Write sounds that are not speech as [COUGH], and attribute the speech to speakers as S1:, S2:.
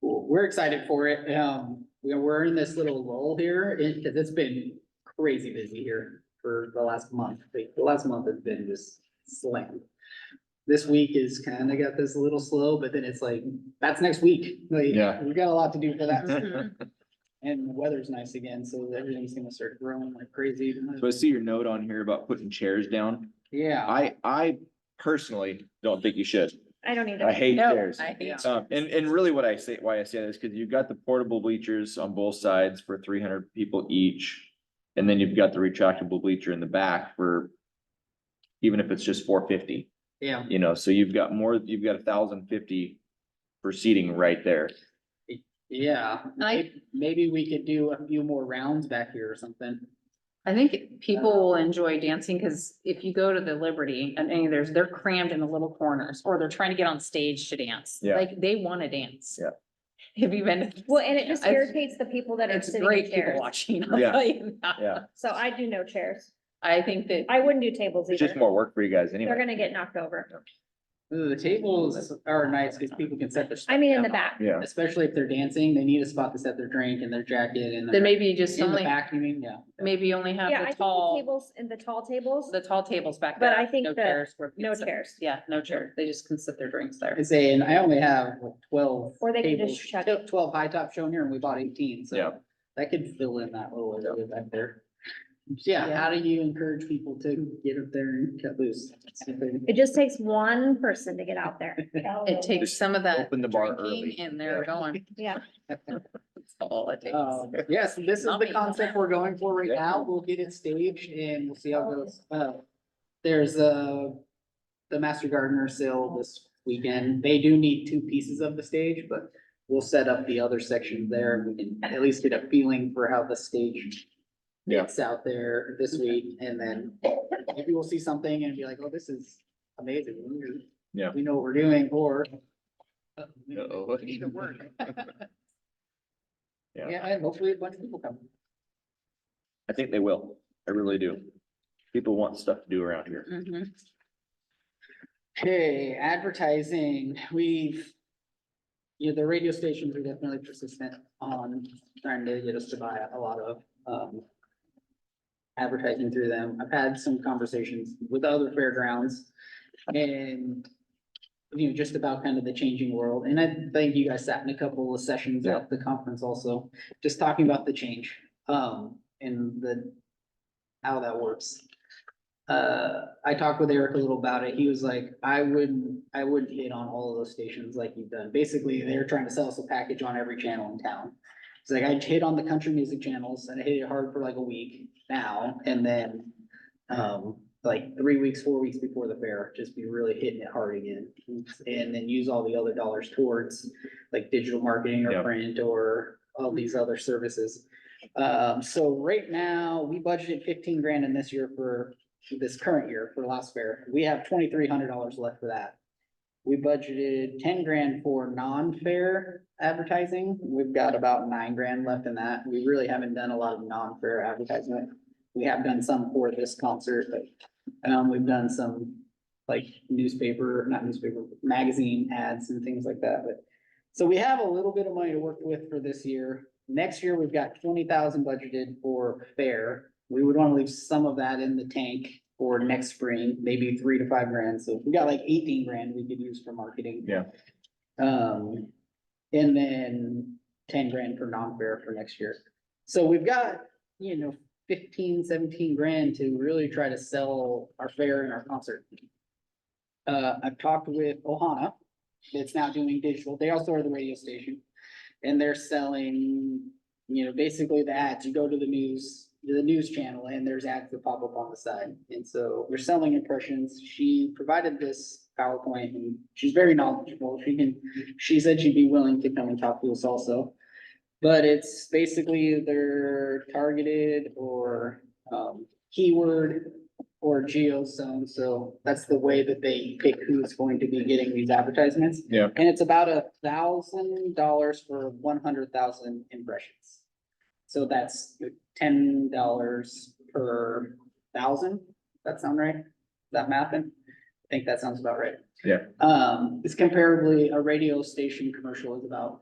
S1: we're excited for it. Um, we- we're in this little lull here, it, cause it's been crazy busy here for the last month. The the last month has been just slammed. This week is kinda got this a little slow, but then it's like, that's next week. Like,
S2: Yeah.
S1: we got a lot to do for
S2: [LAUGHS]
S1: that.
S3: Mm-hmm.
S4: Mhm.
S1: And the weather's nice again, so everything's gonna start growing like crazy.
S2: So I see your note on here about putting chairs down.
S1: Yeah.
S2: I, I personally don't think you should.
S4: I don't either.
S2: I hate
S4: No,
S2: chairs.
S4: I hate
S1: Yeah.
S2: Um, and, and really what I say, why I say that is because you've got the portable bleachers on both sides for three hundred people each. And then you've got the retractable bleacher in the back for even if it's just four fifty,
S1: Yeah.
S2: you know, so you've got more, you've got a thousand fifty for seating right there.
S1: Yeah,
S4: I-
S1: maybe we could do a few more rounds back here or something.
S4: I think people will enjoy dancing because if you go to the Liberty and any of theirs, they're crammed in the little corners or they're trying to get on stage to dance.
S2: Yeah.
S4: Like they want to dance.
S2: Yeah.
S4: Have you been? to-
S3: Well, and it just
S4: I've-
S3: irritates the people that are
S4: It's
S3: sitting in
S4: great people
S3: chairs.
S4: watching. I'll
S2: Yeah.
S4: tell you that.
S2: Yeah,
S3: So I do no chairs.
S4: I think that,
S3: I wouldn't do tables
S2: it's
S3: either.
S2: just more work for you guys
S3: They're
S2: anyway.
S3: gonna get knocked over.
S1: The tables are nice because people can set their. stuff
S3: I mean, in the
S1: down.
S3: back.
S2: Yeah,
S1: Especially if they're dancing, they need a spot to set their drink and their jacket and.
S4: then maybe you just
S1: In the
S4: only,
S1: back, you mean, yeah.
S4: maybe you only
S3: Yeah,
S4: have
S3: I
S4: the
S3: think the
S4: tall,
S3: tables and the tall tables,
S4: the tall tables back
S3: But
S4: there.
S3: I think
S4: no
S3: that
S4: chairs where
S3: no
S4: people sit.
S3: chairs.
S4: Yeah, no chair. They just can sit their drinks there.
S1: I say, and I only have like, twelve.
S3: Or they can just
S1: tables,
S3: shut
S1: tw- Twelve high top shown here and we bought eighteen, so
S2: Yeah.
S1: that could fill in that little area back there. Yeah,
S4: Yeah.
S1: how do you encourage people to get up there and cut loose?
S3: It just takes one person to get out there.
S4: [LAUGHS] It takes some of that
S2: open the bar
S4: drinking
S2: early.
S4: and they're
S3: [LAUGHS]
S4: going. Oh.
S3: Yeah.
S4: That's all it takes.
S1: Um, yes, this is the
S4: Yummy.
S1: concept we're going for right now. We'll get it staged and we'll see how it goes. Uh, there's uh the Master Gardener sale this weekend. They do need two pieces of the stage, but we'll set up the other section there. We can at least get a feeling for how the stage
S2: Yeah.
S1: gets out there this week and then maybe we'll see something and be like, oh, this is amazing. We-
S2: Yeah.
S1: We know what we're doing or uh, we
S2: Uh-oh.
S1: need to work.
S2: [LAUGHS] Yeah.
S1: Yeah, and hopefully a bunch of people come.
S2: I think they will. I really do. People want stuff to do around here.
S4: Mhm.
S1: Okay, advertising, we've. Yeah, the radio stations are definitely persistent on trying to get us to buy a lot of, um. Advertising through them. I've had some conversations with other fairgrounds and. You know, just about kind of the changing world. And I think you guys sat in a couple of sessions at the conference also, just talking about the change, um, and the. How that works uh, I talked with Eric a little about it. He was like, I wouldn't, I wouldn't hit on all of those stations like you've done. Basically, they're trying to sell us a package on every channel in town. It's like I hit on the country music channels and I hit it hard for like a week now and then um, like three weeks, four weeks before the fair, just be really hitting it hard again. And then use all the other dollars towards like digital marketing or
S2: Yep.
S1: print or all these other services. Um, so right now, we budgeted fifteen grand in this year for this current year for last fair. We have twenty-three hundred dollars left for that. We budgeted ten grand for non-fair advertising. We've got about nine grand left in that. We really haven't done a lot of non-fair advertisement. We have done some for this concert, but, um, we've done some like newspaper, not newspaper, magazine ads and things like that, but. So we have a little bit of money to work with for this year. Next year, we've got twenty thousand budgeted for fair. We would want to leave some of that in the tank for next spring, maybe three to five grand. So if we got like eighteen grand we could use for marketing.
S2: Yeah.
S1: Um, and then ten grand for non-fair for next year. So we've got, you know, 15, 17 grand to really try to sell our fair and our concert. Uh, I've talked with Ohana, that's now doing digital. They also are the radio station. And they're selling, you know, basically the ads. You go to the news, the news channel and there's ads that pop up on the side. And so we're selling impressions. She provided this PowerPoint and she's very knowledgeable. She can, she said she'd be willing to come and talk to us also. But it's basically either targeted or um keyword or geo zone, so that's the way that they pick who's going to be getting these advertisements.
S2: Yeah.
S1: And it's about a thousand dollars for one hundred thousand impressions. So that's ten dollars per thousand, that sound right? That mapping? I think that sounds about right.
S2: Yeah.
S1: Um, it's comparably, a radio station commercial is about